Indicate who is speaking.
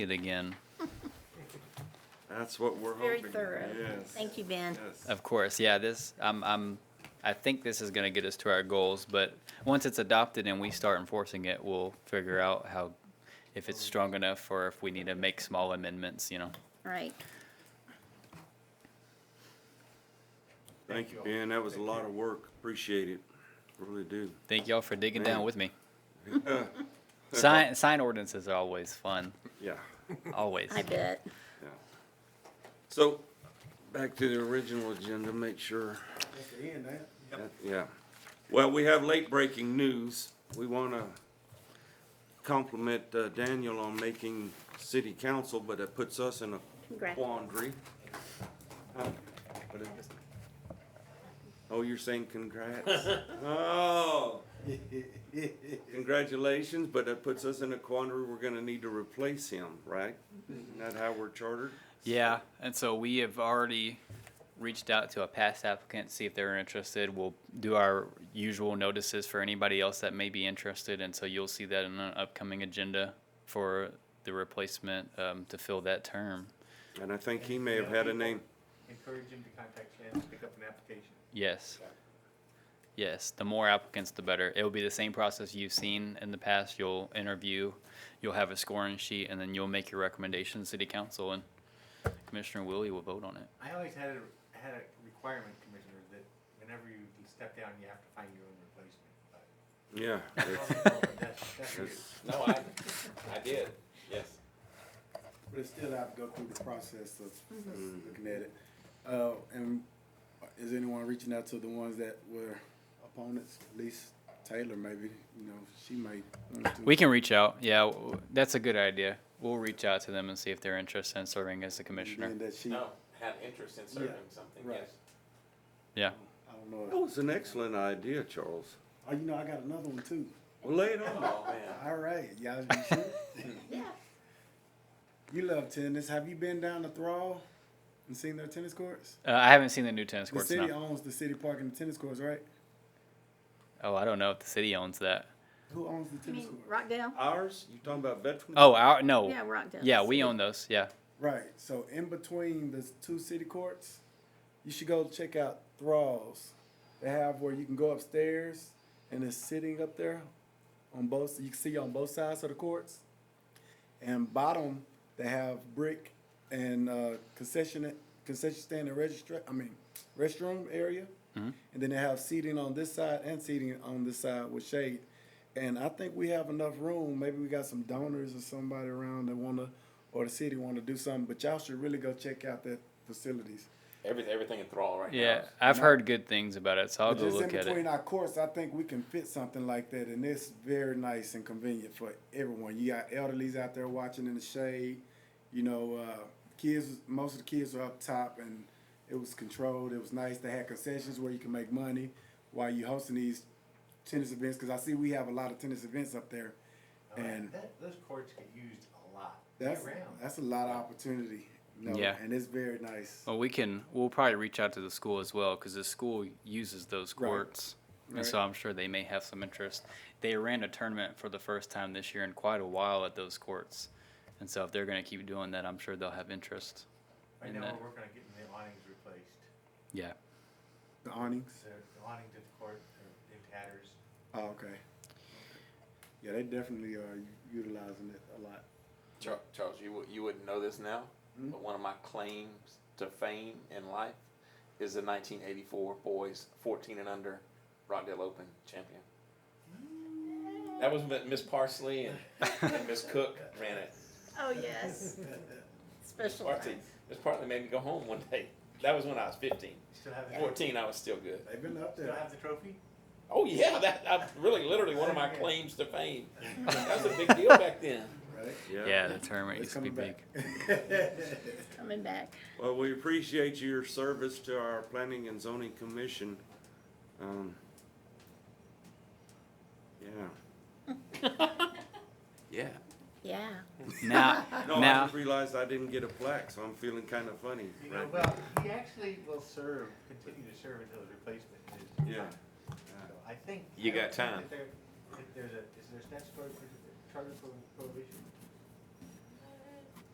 Speaker 1: it again.
Speaker 2: That's what we're
Speaker 3: Very
Speaker 2: hoping.
Speaker 3: thorough.
Speaker 2: Yes.
Speaker 3: Thank you, Ben.
Speaker 2: Yes.
Speaker 1: Of course, yeah, this, I'm, I'm, I think this is gonna get us to our goals, but once it's adopted and we start enforcing it, we'll figure out how, if it's strong enough or if we need to make small amendments, you know.
Speaker 3: Right.
Speaker 2: Thank you, Ben. That was a lot of work. Appreciate it. Really do.
Speaker 1: Thank y'all for digging down
Speaker 2: Man.
Speaker 1: with me. Sign, sign ordinances are always fun,
Speaker 2: Yeah,
Speaker 1: always.
Speaker 3: I bet.
Speaker 2: yeah. So, back to the original agenda, make sure.
Speaker 4: That's the end, that.
Speaker 2: that- Yeah. Well, we have late breaking news. We want to compliment uh, Daniel on making city council, but it puts us in a
Speaker 3: Congrats.
Speaker 2: quandary. Huh? But it- Oh, you're saying congrats? Oh. Congratulations, but that puts us in a quandary. We're gonna need to replace him, right? Isn't that how we're chartered?
Speaker 1: Yeah, and so we have already reached out to a past applicant, see if they're interested. We'll do our usual notices for anybody else that may be interested, and so you'll see that in an upcoming agenda for the replacement um, to fill that term.
Speaker 2: And I think he may have had a name.
Speaker 5: Encourage him to contact Shannon to pick up an application.
Speaker 1: Yes. Yes, the more applicants, the better. It will be the same process you've seen in the past. You'll interview, you'll have a scoring sheet, and then you'll make your recommendation to City Council, and Commissioner Willie will vote on it.
Speaker 5: I always had a, had a requirement, Commissioner, that whenever you step down, you have to find your own replacement. But-
Speaker 2: Yeah.
Speaker 5: That's, that's you.
Speaker 2: Yes.
Speaker 6: No, I, I did, yes.
Speaker 4: But it's still have to go through the process of of
Speaker 1: Mm-hmm.
Speaker 4: looking at it. Uh, and is anyone reaching out to the ones that were opponents? At least Taylor, maybe, you know, she might. want to-
Speaker 1: We can reach out. Yeah, w- w- that's a good idea. We'll reach out to them and see if they're interested in serving as a commissioner.
Speaker 4: Being that she, I
Speaker 6: No, had interest in serving something,
Speaker 4: right.
Speaker 6: yes.
Speaker 1: Yeah.
Speaker 4: don't
Speaker 2: That
Speaker 4: know.
Speaker 2: was an excellent idea, Charles.
Speaker 4: Oh, you know, I got another one too.
Speaker 2: Well, lay it on.
Speaker 6: Oh, man.
Speaker 4: All right, y'all. you sure?
Speaker 3: Yeah.
Speaker 4: You love tennis. Have you been down to Thrall and seen their tennis courts?
Speaker 1: Uh, I haven't seen the new tennis
Speaker 4: The
Speaker 1: courts
Speaker 4: city
Speaker 1: now.
Speaker 4: owns the city park and the tennis courts, right?
Speaker 1: Oh, I don't know if the city owns that.
Speaker 4: Who owns the
Speaker 3: You
Speaker 4: tennis
Speaker 3: mean
Speaker 4: court?
Speaker 3: Rockdale?
Speaker 2: Ours? You talking about veterans?
Speaker 1: Oh, our no.
Speaker 3: Yeah, Rockdale.
Speaker 1: Yeah, we own those. Yeah.
Speaker 4: Right. So in between the two city courts, you should go check out Thralls. They have where you can go upstairs and it's sitting up there on both. You can see on both sides of the courts. And bottom, they have brick and uh, concession concession stand and register. I mean, restroom area. And then they have seating on this side and seating on this side with shade. And I think we have enough room. Maybe we got some donors or somebody around that wanna, or the city wanna do something. But y'all should really go check out that facilities.
Speaker 6: Everything, everything in thrall right now.
Speaker 1: Yeah, I've heard good things about it, so I'll
Speaker 4: But
Speaker 1: go
Speaker 4: just
Speaker 1: look
Speaker 4: in
Speaker 1: at it.
Speaker 4: between our courts, I think we can fit something like that, and it's very nice and convenient for everyone. You got elderlies out there watching in the shade, you know, uh, kids. Most of the kids are up top, and it was controlled. It was nice. They had concessions where you can make money while you hosting these tennis events. Because I see we have a lot of tennis events up there,
Speaker 5: All right,
Speaker 4: and
Speaker 5: that- Those courts get used a lot, year
Speaker 4: that's
Speaker 5: round.
Speaker 4: that's a lot of opportunity. You know,
Speaker 1: Yeah. Oh.
Speaker 4: and it's very nice.
Speaker 1: Well, we can. We'll probably reach out to the school as well because the school uses those
Speaker 4: Right.
Speaker 1: courts, and so I'm sure they may have some interest. They ran a tournament for the first time this year in quite a while at those courts, and so if they're going to keep doing that, I'm sure they'll have interest.
Speaker 5: Right
Speaker 1: in
Speaker 5: now,
Speaker 1: that.
Speaker 5: we're working on getting the awnings replaced.
Speaker 1: Yeah.
Speaker 4: The awnings.
Speaker 5: So the awnings at the court, they're in tatters.
Speaker 4: Oh, okay. Yeah, they definitely are utilizing it a lot.
Speaker 6: Char- Charles, you, wou- you wouldn't know this now, but one of my claims to fame in life is the nineteen eighty-four boys fourteen and under Rockdale Open champion. That was when Miss Parsley and, and Miss Cook ran it.
Speaker 3: Oh, yes. Special.
Speaker 6: Parsley, Miss Parsley made me go home one day. That was when I was fifteen.
Speaker 5: You Still have, the-
Speaker 6: Fourteen, I was still good.
Speaker 4: They've been up
Speaker 5: still
Speaker 4: there.
Speaker 5: have the trophy?
Speaker 6: Oh yeah, that I really literally one of my claims to fame. That was a big deal back then.
Speaker 4: Right?
Speaker 1: Yeah, the tournament
Speaker 4: It's
Speaker 1: used to be
Speaker 4: coming
Speaker 1: big.
Speaker 4: back.
Speaker 3: Coming back.
Speaker 2: Well, we appreciate your service to our planning and zoning commission. Um, yeah.
Speaker 6: Yeah.
Speaker 3: Yeah.
Speaker 1: Now,
Speaker 2: No, I
Speaker 1: Now-
Speaker 2: just realized I didn't get a plaque, so I'm feeling kind of funny.
Speaker 5: You know,
Speaker 2: right now.
Speaker 5: well, he actually will serve, continue to serve until his replacement is.
Speaker 2: Yeah.
Speaker 5: So I think.
Speaker 6: You
Speaker 5: I don't
Speaker 6: got
Speaker 5: think
Speaker 6: time.
Speaker 5: that there- that There's a, is there a statutory pro- charter pro- prohibition